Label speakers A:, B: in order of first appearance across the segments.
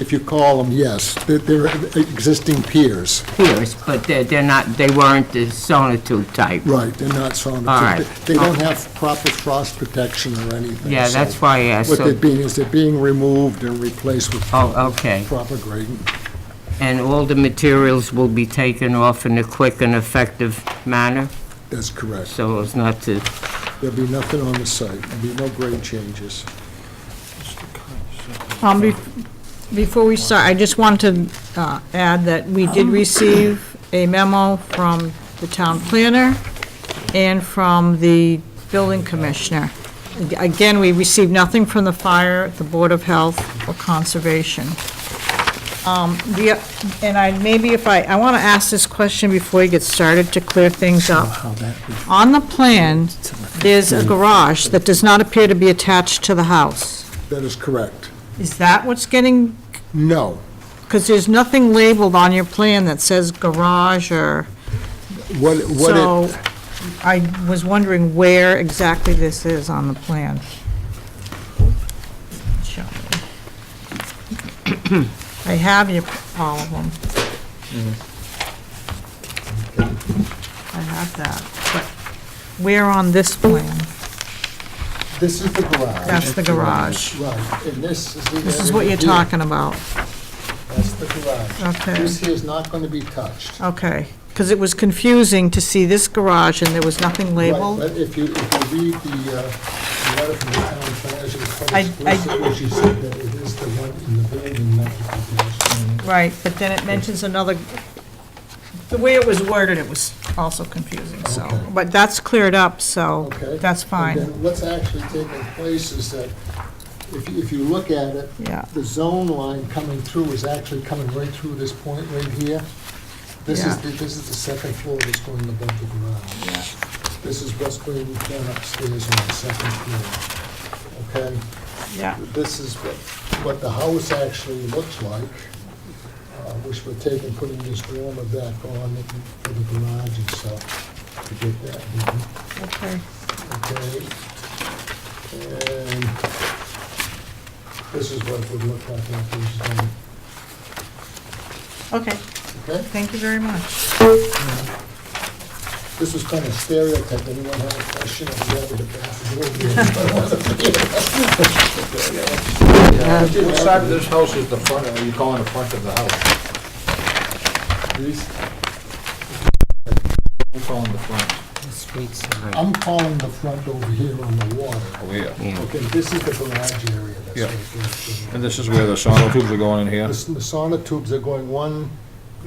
A: if you call them, yes, they're, they're existing piers.
B: piers, but they're, they're not, they weren't the sonotube type.
A: Right, they're not sauna.
B: All right.
A: They don't have proper frost protection or anything.
B: Yeah,
A: so
B: that's why I asked,
A: What
B: so-
A: they're being, is they're being removed and replaced with
B: Oh, okay.
A: proper grading.
B: And all the materials will be taken off in a quick and effective manner,
A: That's correct.
B: so as not to,
A: There'll be nothing on the site, there'll be no grade changes.
C: Um, bef- Before we start, I just want to uh, add that we did receive a memo from the town planner and from the building commissioner. Again, we received nothing from the fire, the Board of Health, or Conservation. Um, the- And I, maybe if I, I want to ask this question before we get started to clear things up. On the plan, there's a garage that does not appear to be attached to the house.
A: That is correct.
C: Is that what's getting,
A: No,
C: because there's nothing labeled on your plan that says garage or,
A: what, what
C: so
A: it,
C: I was wondering where exactly this is on the plan. Show me. I have your, all of them. I have that, but where on this plan?
A: this is the garage.
C: That's the garage.
A: Right, and this is the.
C: This is what you're
A: area here.
C: talking about,
A: That's the garage.
C: Okay.
A: This here is not going to be touched.
C: okay. Because it was confusing to see this garage and there was nothing
A: Right,
C: labeled.
A: But if you, if you read the, uh, the letter from the town planner, it's
C: I- I-
A: quite explicit where she said that it is the one in the building, not the garage.
C: Right, but then it mentions another, the way it was worded, it was also confusing, so.
A: Okay.
C: But that's cleared up, so
A: Okay?
C: that's
A: And
C: fine.
A: then what's actually taking place is that, if you, if you look at it,
C: Yeah,
A: the zone line coming through is actually coming right through this point right here. This is,
C: Yeah.
A: the- this is the second floor that's going above the ground.
C: yeah,
A: This is what's going down upstairs on the second floor, okay?
C: yeah,
A: This is what, what the house actually looks like, uh, which we're taking, putting this dormer back on it for the garage and stuff, to get that done,
C: okay.
A: okay? And this is what it would look like after it's done,
C: Okay,
A: okay?
C: thank you very much.
A: This was kind of stereotype, anyone have a question, if you have it, the
D: What side of this house is the front, are you calling the front of the house? I'm calling the front.
B: the street side.
A: I'm calling the front over here on the water.
D: Oh, yeah.
B: Yeah.
A: Okay, this is the garage area that's
D: Yeah.
A: right there.
D: And this is where the sono tubes are going in here?
A: The s- the sauna tubes are going one,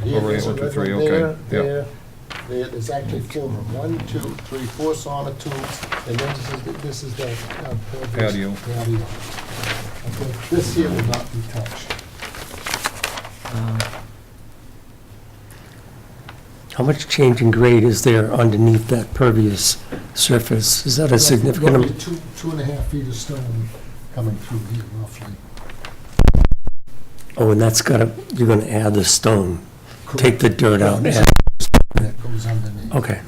A: here,
D: Over here,
A: there's a
D: one, two,
A: red
D: three,
A: one
D: okay,
A: there,
D: yeah.
A: there, there, there's actually four, of 'em. one, two, three, four sauna tubes, and then this is, the- this is the. uh, pervious
D: Patio.
A: Patio. Okay, This here will not be touched.
E: How much change in grade is there underneath that pervious surface? Is that a significant,
A: Roughly
E: am-
A: Two, two and a half feet of stone coming through here roughly.
E: oh, and that's gotta, you're gonna add the stone, take the dirt out,
A: This
E: add-
A: That goes underneath.
E: okay,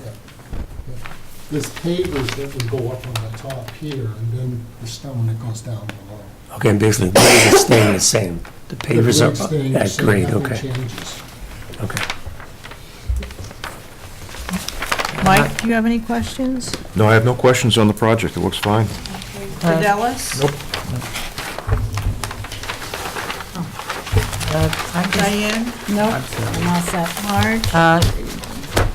A: There's pavers that would go up on the top here, and then the stone that goes down below.
E: okay, and basically the grade is staying the same. The
A: The
E: pavers
A: grade's staying
E: are
A: the
E: at
A: same,
E: grade,
A: nothing
E: okay,
A: changes.
E: okay.
C: Mike, do you have any questions?
F: No, I have no questions on the project. It looks fine.
A: Uh,
C: For Dallas? Nope. Oh. Uh, Diane? Nope. I'm all set. Marge?
B: Uh,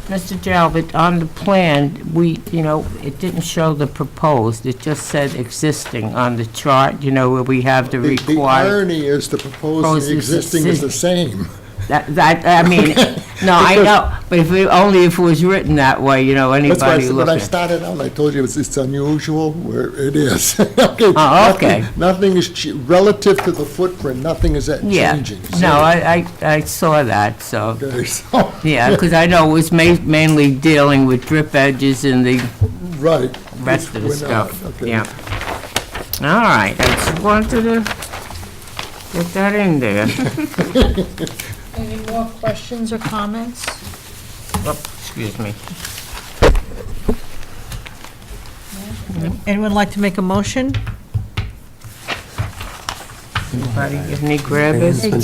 B: Mr. Talbot, on the plan, we, you know, it didn't show the proposed, it just said existing on the chart, you know, where we have the
A: The- The
B: required.
A: irony is the proposed,
B: Proposed
A: the
B: is the
A: existing is the same.
B: That, that- I mean, no, I know, but if, we- only if it was written that way, you know,
A: That's why, I
B: anybody
A: said- when I
B: looking.
A: started out, I told you it's, it's unusual where it is. Okay,
B: Oh, okay.
A: nothing- Nothing is, che- relative to the footprint, nothing is that
B: Yeah,
A: changing.
B: no,
A: So-
B: I, I, I saw that, so.
A: Okay, so,
B: Yeah, because I know it was ma- mainly dealing with drip edges and the
A: right.
B: rest of the
A: We're not,
B: stuff,
A: okay.
B: yeah. All right, I just wanted to get that in there.
C: Any more questions or comments?
B: Oh, Excuse me.
C: Anyone like to make a motion?
B: Anybody, have any grabbers?
E: It's been